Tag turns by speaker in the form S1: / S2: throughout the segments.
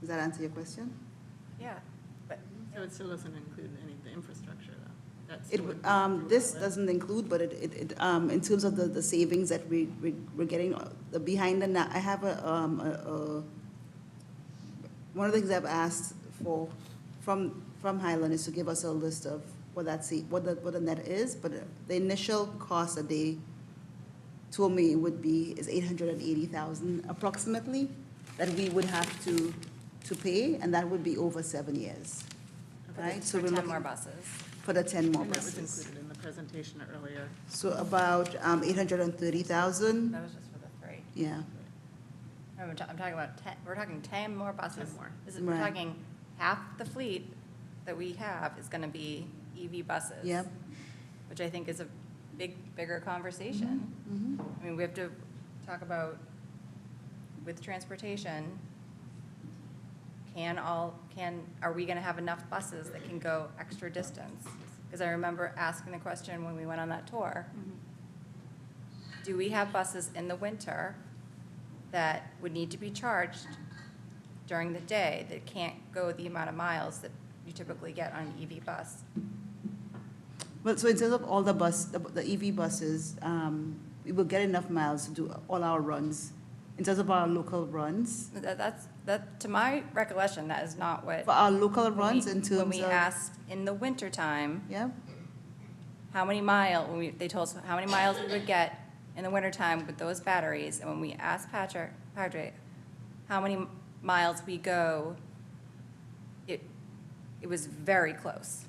S1: Does that answer your question?
S2: Yeah, but,
S3: So it still doesn't include any of the infrastructure, though? That's
S1: It,
S3: still
S1: would-
S3: included
S1: um, this
S3: throughout it.
S1: doesn't include, but it, it, it, um, in terms of the, the savings that we, we- we're getting, uh, the behind the, na- I have a, um, a, a, one of the things I've asked for, from, from Highland is to give us a list of what that, sa- what the, what the net is, but the initial cost that they told me would be, is eight hundred and eighty thousand approximately, that we would have to, to pay, and that would be over seven years. Right? So
S2: for
S1: we're
S2: ten
S1: looking
S2: more buses.
S1: For the ten more
S3: And that was
S1: buses.
S3: included in the presentation earlier.
S1: So about um, 830,000,
S2: That was just for the three.
S1: yeah.
S2: I'm ta- I'm talking about ten, we're talking ten more buses.
S3: 10 more.
S2: This is, we're
S1: Right.
S2: talking half the fleet that we have is gonna be EV buses.
S1: Yep.
S2: Which I think is a big, bigger conversation.
S1: Mhm.
S2: I mean, we have to talk about with transportation, can all, can, are we gonna have enough buses that can go extra distance? Because I remember asking the question when we went on that tour. Do we have buses in the winter that would need to be charged during the day that can't go the amount of miles that you typically get on an EV bus?
S1: But so instead of all the bus, the the EV buses, um, we will get enough miles to do all our runs, in terms of our local runs.
S2: That, that's, that, to my recollection, that is not what.
S1: For our local
S2: when
S1: runs
S2: we-
S1: in terms of.
S2: When we asked in the wintertime,
S1: Yeah,
S2: how many mile, when we, they told us how many miles we would get in the wintertime with those batteries, and when we asked Patrick, Patrick, how many miles we go, it, it was very close.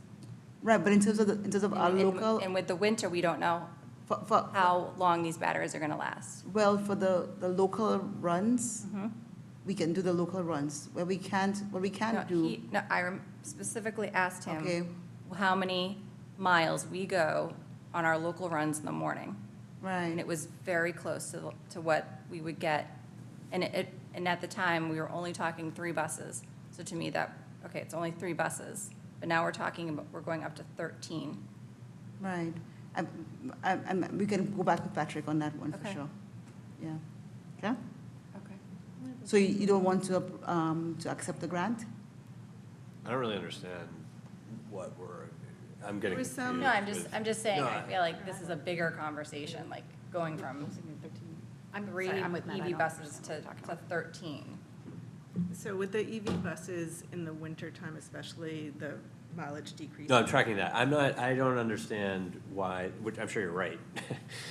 S1: right, but in terms of, the in terms of our
S2: And- and-
S1: local,
S2: And with the winter, we don't know
S1: for, for-
S2: how long these batteries are gonna last.
S1: well, for the, the local runs,
S2: Mm-hmm.
S1: we can do the local runs. Where we can't, where we
S2: No,
S1: can't do,
S2: he- No, I rem- specifically asked
S1: Okay.
S2: him how many miles we go on our local runs in the morning. And
S1: right,
S2: it was very close to, to what we would get. And it, and at the time, we were only talking three buses. So to me, that, okay, it's only three buses, but now we're talking, about we're going up to thirteen.
S1: right. I, I, I'm- we can go back with Patrick on that one for
S2: Okay.
S1: sure. Yeah, okay?
S2: Okay.
S1: So you you don't want to, um, to accept the grant?
S4: I don't really understand what we're, I'm getting
S3: There was
S4: confused.
S3: some-
S2: No, I'm just,
S4: with-
S2: I'm just saying,
S4: No,
S2: I
S4: I-
S2: feel like this is a bigger conversation, like going from
S5: I'm
S2: three
S5: sorry, I'm with Matt. I
S2: EV
S5: don't
S2: E buses
S5: understand what
S2: to,
S5: you're talking
S2: to thirteen.
S3: So with the EV buses in the wintertime especially, the mileage decreases.
S4: No, I'm tracking that. I'm not, I don't understand why, which I'm sure you're right,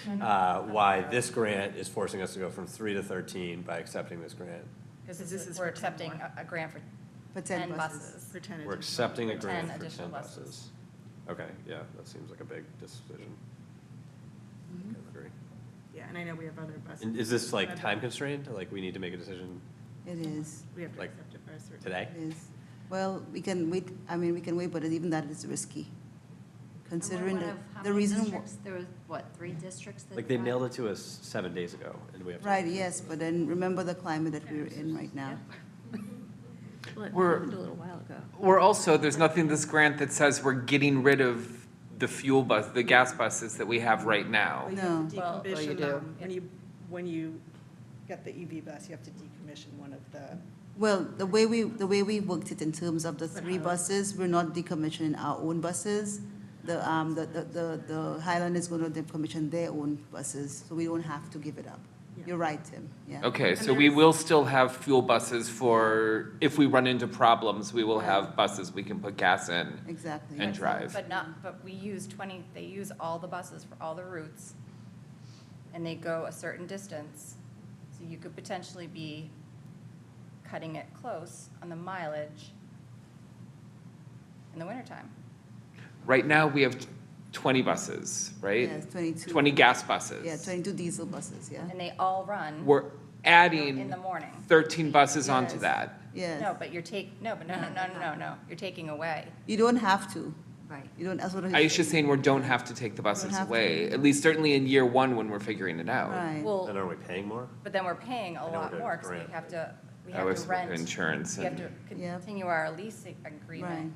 S2: Mm-hmm.
S4: uh, why this grant is forcing us to go from three to 13 by accepting this grant.
S2: Because
S3: Because this is
S2: we're
S3: for 10
S2: accepting
S3: more.
S2: a, a grant for
S1: For 10
S2: ten
S1: buses.
S2: buses.
S3: For 10
S4: We're
S3: additional-
S4: accepting a
S2: For 10
S4: grant for
S2: additional
S4: 10
S2: buses.
S4: buses. Okay, yeah, that seems like a big decision.
S2: Mm-hmm.
S4: Kind of agree.
S3: Yeah, and I know we have other buses.
S4: And is this like
S3: But
S4: time constrained? Like, we need to make a decision
S1: It is,
S3: We have to
S4: like,
S3: accept it by a certain.
S4: today?
S1: it is. Well, we can wait, I mean, we can wait, but even that is risky, considering the, the reason. wh-
S5: There was, what, three districts that?
S4: Like, they mailed it to us seven days ago, and we have. to-
S1: Right, yes, but then remember the climate that we're in right now.
S6: We're, we're also, there's nothing in this grant that says we're getting rid of the fuel bus, the gas buses that we have right now.
S3: But you have to
S2: Well-
S7: Well, oh, you
S3: decommission
S7: do.
S3: them. When you, when you get the EV bus, you have to decommission one of the,
S1: Well, the way we, the way we worked it in terms of the three buses, we're not decommissioning our own buses. The, um, the, the- the, the Highland is gonna decommission their own buses, so we don't have to give it up.
S3: Yeah.
S1: You're right, Tim, yeah.
S6: Okay, so we will still have fuel buses for, if we run into problems, we will have buses we can put gas in
S1: Exactly.
S6: and drive.
S2: But not, but we use twenty, they use all the buses for all the routes, and they go a certain distance. So you could potentially be cutting it close on the mileage in the wintertime.
S6: Right now, we have twenty buses, right?
S1: Yes, 22.
S6: Twenty gas buses.
S1: Yeah, twenty-two diesel buses, yeah,
S2: And they all run
S6: We're
S2: in
S6: adding
S2: the morning.
S6: thirteen buses onto
S1: Yes.
S6: that.
S1: yes.
S2: No, but you're take, no, but no, no, no, no, no, no, you're taking away.
S1: You don't have to.
S5: Right.
S1: You don't, that's what. I-
S6: Aisha's saying we don't have to take the buses
S1: have to.
S6: away, at least certainly in year one when we're figuring it out.
S1: Right.
S4: Then
S2: Well,
S4: are we paying more?
S2: but then we're paying a
S4: I know
S2: lot
S4: we're
S2: more, because
S4: grant.
S2: we have to, we
S6: That
S2: have
S6: was
S2: to rent.
S6: insurance
S2: We have to
S6: and-
S1: Yeah.
S2: continue our lease ag-
S1: Right.
S2: agreement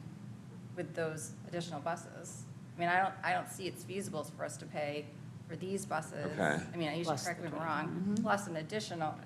S2: with those additional buses. I mean, I don't, I don't see it's feasible for us to pay for these buses.
S6: Okay.
S2: I mean, you should
S7: Plus
S2: correct me
S7: the Mm-hmm.
S2: if I'm wrong, plus an additional,